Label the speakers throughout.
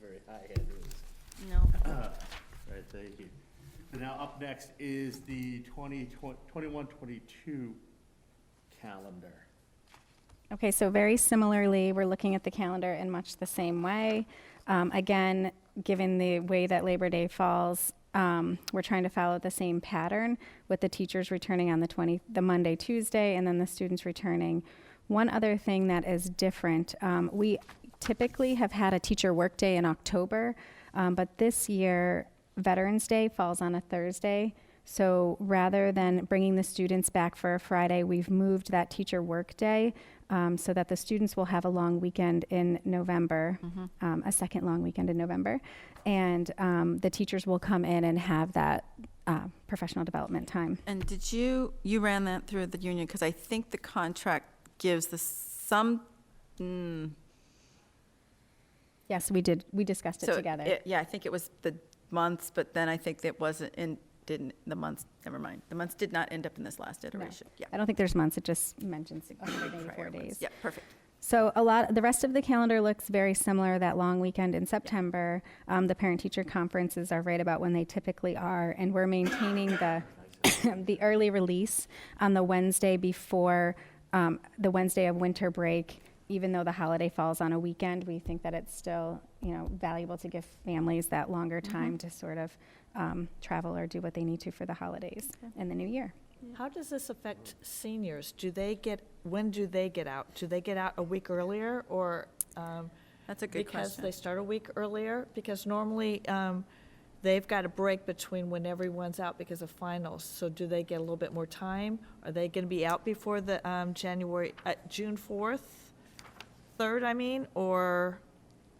Speaker 1: very, very high end is.
Speaker 2: No.
Speaker 1: All right, thank you. So now up next is the 20 twen- 21, 22 calendar.
Speaker 3: Okay, so very similarly, we're looking at the calendar in much the same way. Um, again, given the way that Labor Day falls, um, we're trying to follow the same pattern with the teachers returning on the 20, the Monday, Tuesday, and then the students returning. One other thing that is different, um, we typically have had a teacher workday in October, um, but this year Veterans Day falls on a Thursday. So rather than bringing the students back for a Friday, we've moved that teacher workday um, so that the students will have a long weekend in November,
Speaker 2: Mm-hmm.
Speaker 3: um, a second long weekend in November, and um, the teachers will come in and have that uh, professional development time.
Speaker 2: And did you, you ran that through the union, because I think the contract gives the some, mm.
Speaker 3: Yes, we did. We discussed it
Speaker 2: so
Speaker 3: together.
Speaker 2: it- Yeah, I think it was the months, but then I think it wasn't, in didn't, the months, never mind. The months did not end up in this last
Speaker 3: No.
Speaker 2: iteration. Yeah.
Speaker 3: I don't think there's months. It just mentions
Speaker 2: Prior
Speaker 3: 184
Speaker 2: ones.
Speaker 3: days.
Speaker 2: Yeah, perfect.
Speaker 3: So a lot, the rest of the calendar looks very similar. That long weekend in September, um, the parent-teacher conferences are right about when they typically are, and we're maintaining the the early release on the Wednesday before um, the Wednesday of winter break. Even though the holiday falls on a weekend, we think that it's still you know valuable to give families that longer time to sort of um, travel or do what they need to for the holidays and the new year.
Speaker 4: How does this affect seniors? Do they get, when do they get out? Do they get out a week earlier or? um,
Speaker 2: That's a good
Speaker 4: Because they
Speaker 2: question.
Speaker 4: start a week earlier? Because normally um, they've got a break between when everyone's out because of finals. So do they get a little bit more time? Are they going to be out before the um, January, uh, June 4th? 3rd, I mean, or,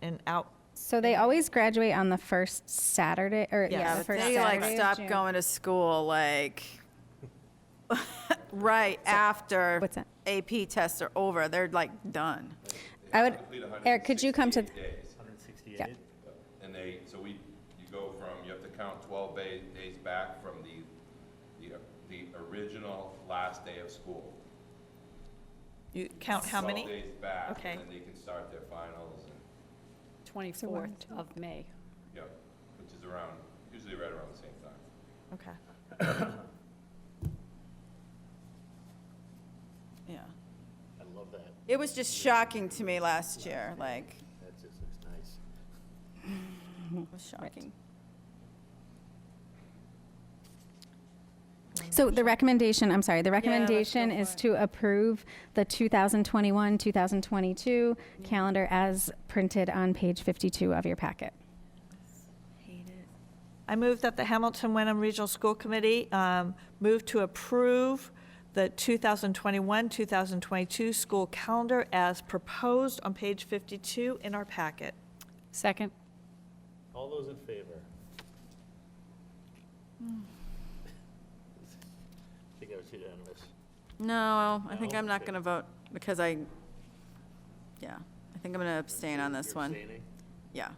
Speaker 4: and out?
Speaker 3: So they always graduate on the first Saturday, or yeah,
Speaker 4: Yeah,
Speaker 3: the
Speaker 4: but
Speaker 3: first
Speaker 2: They
Speaker 3: Saturday
Speaker 2: like
Speaker 3: of
Speaker 2: stop
Speaker 3: June.
Speaker 2: going to school like, right after
Speaker 3: what's that?
Speaker 2: AP tests are over. They're like done.
Speaker 3: I would, Eric, could you come to, th-
Speaker 1: 168?
Speaker 3: Yeah.
Speaker 5: And they, so we, you go from, you have to count 12 ba- days back from the, the, the original last day of school.
Speaker 4: You count how
Speaker 5: 12
Speaker 4: many?
Speaker 5: days back.
Speaker 4: Okay.
Speaker 5: And then they can start their finals, and,
Speaker 6: 24th of May.
Speaker 5: you know, which is around, usually right around the same time.
Speaker 4: Okay.
Speaker 2: Yeah.
Speaker 1: I love that.
Speaker 2: It was just shocking to me last year, like,
Speaker 1: That just looks nice.
Speaker 2: it was shocking.
Speaker 3: so the recommendation, I'm sorry, the recommendation
Speaker 2: go
Speaker 3: is
Speaker 2: for it.
Speaker 3: to approve the 2021, 2022 calendar as printed on page 52 of your packet.
Speaker 4: I move that the Hamilton Wenham Regional School Committee um, move to approve the 2021-2022 school calendar as proposed on page 52 in our packet.
Speaker 6: Second?
Speaker 1: All those in favor?
Speaker 2: Hmm.
Speaker 1: I think I was unanimous.
Speaker 2: No, I think
Speaker 1: No?
Speaker 2: I'm not
Speaker 1: Okay.
Speaker 2: going to vote because I, yeah, I think I'm going to abstain on this
Speaker 1: You're
Speaker 2: one.
Speaker 1: abstaining?
Speaker 2: Yeah.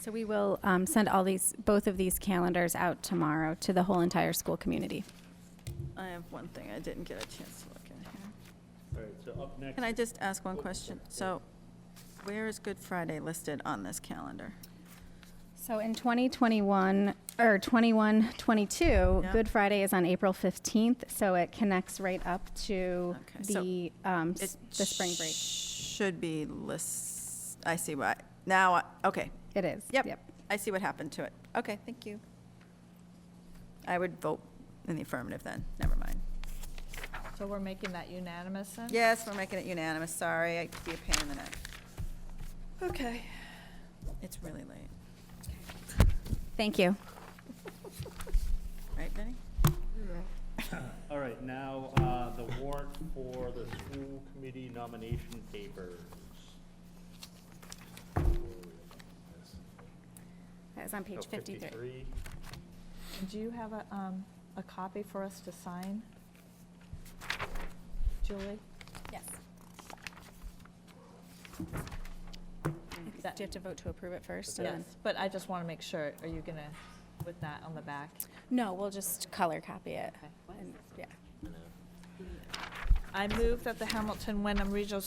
Speaker 3: So we will um, send all these, both of these calendars out tomorrow to the whole entire school community.
Speaker 2: I have one thing I didn't get a chance to look at here.
Speaker 1: All right, so up next.
Speaker 2: Can I just ask one question? So where is Good Friday listed on this calendar?
Speaker 3: So in 2021, or 21, 22,
Speaker 2: Yeah.
Speaker 3: Good Friday is on April 15th, so it connects right up to
Speaker 2: Okay, so
Speaker 3: the, um, s-
Speaker 2: It
Speaker 3: the spring break.
Speaker 2: Should be list, I see why, now, I- okay,
Speaker 3: It is.
Speaker 2: yep, I see what happened to it. Okay, thank you. I would vote in the affirmative then, never mind.
Speaker 4: So we're making that unanimous then?
Speaker 2: Yes, we're making it unanimous, sorry, I'd be a pain in the neck.
Speaker 4: Okay.
Speaker 2: It's really late,
Speaker 3: Thank you.
Speaker 2: right, Vinnie?
Speaker 1: All right, now, uh, the warrant for the school committee nomination papers.
Speaker 3: That is on page
Speaker 1: Oh,
Speaker 3: 53.
Speaker 4: Do you have a, um, a copy for us to sign? Julie?
Speaker 3: Yes. Do you have to vote to approve it first? and
Speaker 4: Yes,
Speaker 3: then-
Speaker 4: but I just want to make sure, are you gonna, with that on the back?
Speaker 3: No, we'll just color copy it.
Speaker 4: Okay.
Speaker 3: And- Yeah.
Speaker 4: I move that the Hamilton Wyndham Regional School